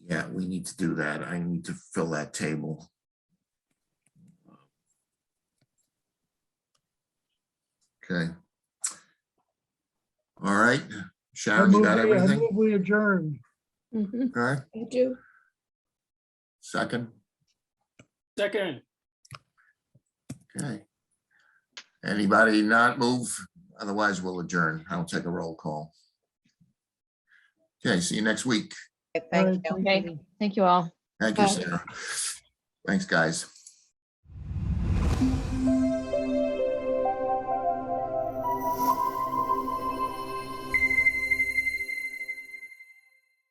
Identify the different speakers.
Speaker 1: Yeah, we need to do that. I need to fill that table. Okay. All right,
Speaker 2: I
Speaker 1: Sharon, you
Speaker 2: move
Speaker 1: got
Speaker 2: we- I
Speaker 1: everything?
Speaker 2: move we adjourn.
Speaker 3: Mm-hmm.
Speaker 4: Mhm,
Speaker 1: All right,
Speaker 4: I do.
Speaker 1: second,
Speaker 5: Second,
Speaker 1: okay. Anybody not move? Otherwise, we'll adjourn. I'll take a roll call. Okay, see you next week.
Speaker 3: Okay, Thank you.
Speaker 2: All right,
Speaker 4: Okay. Thank you all.
Speaker 1: Thank you,
Speaker 4: Bye.
Speaker 1: Sarah. Thanks, guys.